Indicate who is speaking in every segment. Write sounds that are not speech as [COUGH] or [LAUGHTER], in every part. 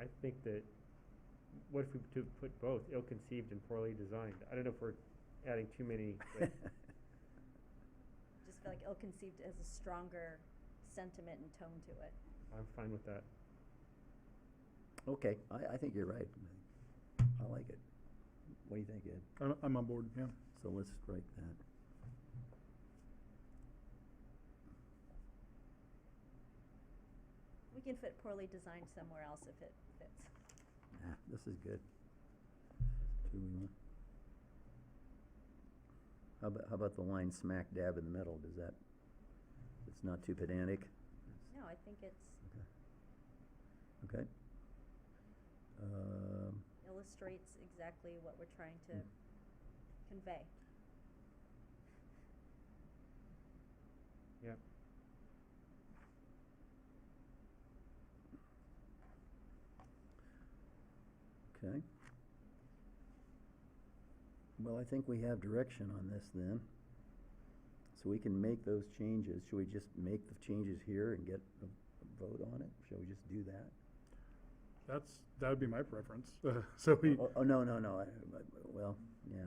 Speaker 1: I think that, what if we to put both, ill-conceived and poorly designed? I don't know if we're adding too many,
Speaker 2: [LAUGHS]
Speaker 1: like,
Speaker 3: Just feel like ill-conceived has a stronger sentiment and tone to it.
Speaker 1: I'm fine with that.
Speaker 2: Okay, I, I think you're right. I like it. What do you think, Ed?
Speaker 4: I'm, I'm on board, yeah.
Speaker 2: So let's strike that.
Speaker 3: We can fit poorly designed somewhere else if it fits.
Speaker 2: Ah, this is good. Do we want? How about, how about the line smack dab in the middle? Does that, it's not too pedantic?
Speaker 3: No, I think it's
Speaker 2: Okay. Um,
Speaker 3: illustrates exactly what we're trying to
Speaker 2: Mm.
Speaker 3: convey.
Speaker 1: Yep.
Speaker 2: Okay. Well, I think we have direction on this then. So we can make those changes. Should we just make the changes here and get a a vote on it? Shall we just do that?
Speaker 4: That's, that would be my preference. [LAUGHS] So we,
Speaker 2: Oh, oh, no, no, no, I, I- well, yeah,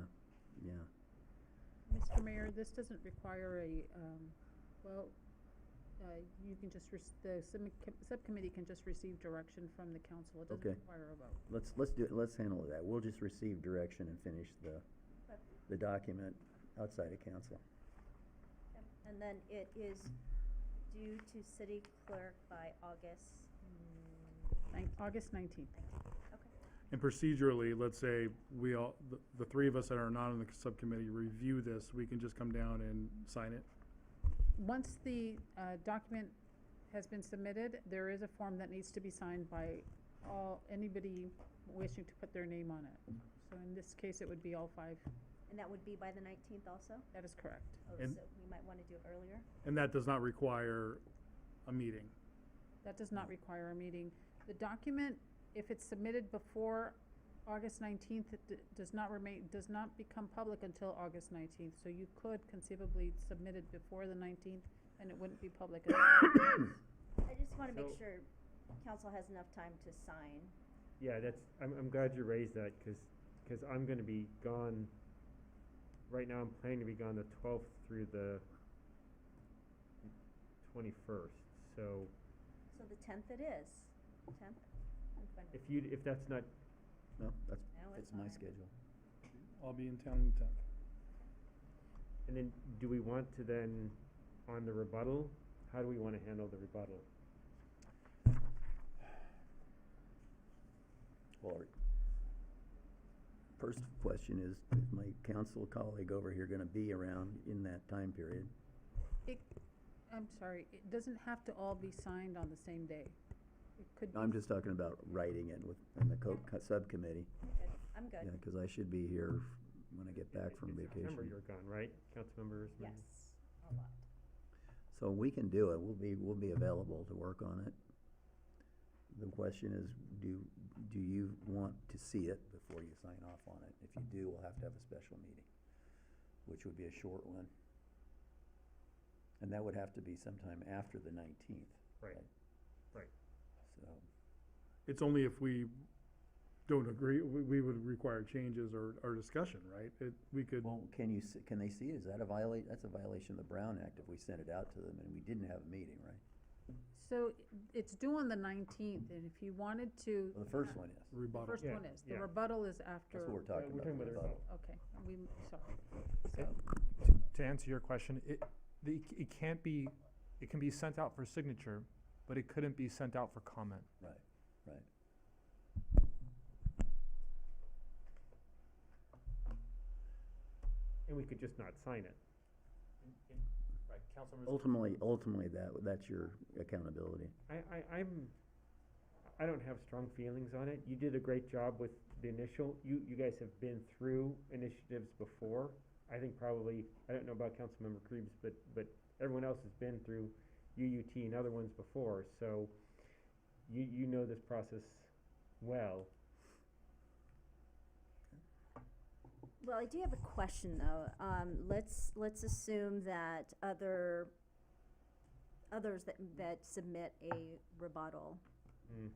Speaker 2: yeah.
Speaker 5: Mr. Mayor, this doesn't require a, um, well, uh, you can just, rec- the submi- com- subcommittee can just receive direction from the council. It doesn't
Speaker 2: Okay.
Speaker 5: require a vote.
Speaker 2: Let's, let's do, it. let's handle that. We'll just receive direction and finish the,
Speaker 3: Okay.
Speaker 2: the document outside of council.
Speaker 3: And then it is due to city clerk by August, mm,
Speaker 5: Nin- August nineteenth.
Speaker 3: okay.
Speaker 4: and procedurally, let's say we all, the, the three of us that are not on the subcommittee review this, we can just come down and sign it.
Speaker 5: Once the, uh, document has been submitted, there is a form that needs to be signed by all, anybody wishing to put their name on it. So in this case, it would be all five.
Speaker 3: And that would be by the nineteenth also?
Speaker 5: That is correct.
Speaker 3: Oh,
Speaker 4: And-
Speaker 3: so we might wanna do it earlier?
Speaker 4: And that does not require a meeting.
Speaker 5: That does not require a meeting. The document, if it's submitted before August nineteenth, it d- does not remain, does not become public until August nineteenth. So you could conceivably submit it before the nineteenth, and it wouldn't be public. [COUGHS] until-
Speaker 3: I just wanna make
Speaker 1: So-
Speaker 3: sure council has enough time to sign.
Speaker 1: Yeah, that's, I'm, I'm glad you raised that, cause, 'cause I'm gonna be gone, right now I'm planning to be gone the twelfth through the twenty-first, so
Speaker 3: So the tenth it is, tenth?
Speaker 1: if you, if that's not,
Speaker 2: No, that's,
Speaker 3: No, it's
Speaker 2: that's my
Speaker 3: fine.
Speaker 2: schedule.
Speaker 4: I'll be in town on the tenth.
Speaker 1: and then do we want to then, on the rebuttal, how do we wanna handle the rebuttal?
Speaker 2: Well, our first question is, is my council colleague over here gonna be around in that time period?
Speaker 5: It, I'm sorry, it doesn't have to all be signed on the same day. It could be.
Speaker 2: I'm just talking about writing it with, in the co- co- subcommittee,
Speaker 3: Okay, I'm
Speaker 2: yeah,
Speaker 3: good,
Speaker 2: cause I should be here when I get back from
Speaker 1: In September,
Speaker 2: vacation.
Speaker 1: you're gone, right, Councilmember Ismail?
Speaker 3: yes, a lot.
Speaker 2: So we can do it, we'll be, we'll be available to work on it. The question is, do, do you want to see it before you sign off on it? If you do, we'll have to have a special meeting, which would be a short one. And that would have to be sometime after the nineteenth.
Speaker 1: Right. Right.
Speaker 2: So,
Speaker 4: It's only if we don't agree, we, we would require changes or, or discussion, right? It, we could,
Speaker 2: well, can you, s- can they see it? Is that a violate, that's a violation of the Brown Act if we sent it out to them and we didn't have a meeting, right?
Speaker 5: So it's due on the nineteenth, and if you wanted to.
Speaker 2: Well, the first one is,
Speaker 5: The
Speaker 4: rebuttal.
Speaker 5: first
Speaker 1: Yeah,
Speaker 5: one is. The
Speaker 1: yeah.
Speaker 5: rebuttal is after.
Speaker 2: that's what we're
Speaker 1: Uh,
Speaker 2: talking about.
Speaker 1: We're talking about the
Speaker 2: rebuttal.
Speaker 1: rebuttal.
Speaker 5: Okay, we, sorry.
Speaker 6: Uh,
Speaker 5: So.
Speaker 6: To answer your question, it, the, it can't be, it can be sent out for signature, but it couldn't be sent out for comment.
Speaker 2: Right, right.
Speaker 1: And we could just not sign it.
Speaker 6: Right, Councilmember.
Speaker 2: Ultimately, ultimately, that, that's your accountability.
Speaker 1: I, I, I'm, I don't have strong feelings on it. You did a great job with the initial, you, you guys have been through initiatives before. I think probably, I don't know about Councilmember Krebs, but, but everyone else has been through UUT and other ones before, so you, you know this process well.
Speaker 3: Well, I do have a question though. Um, let's, let's assume that other, others that, that submit a rebuttal
Speaker 1: Mm.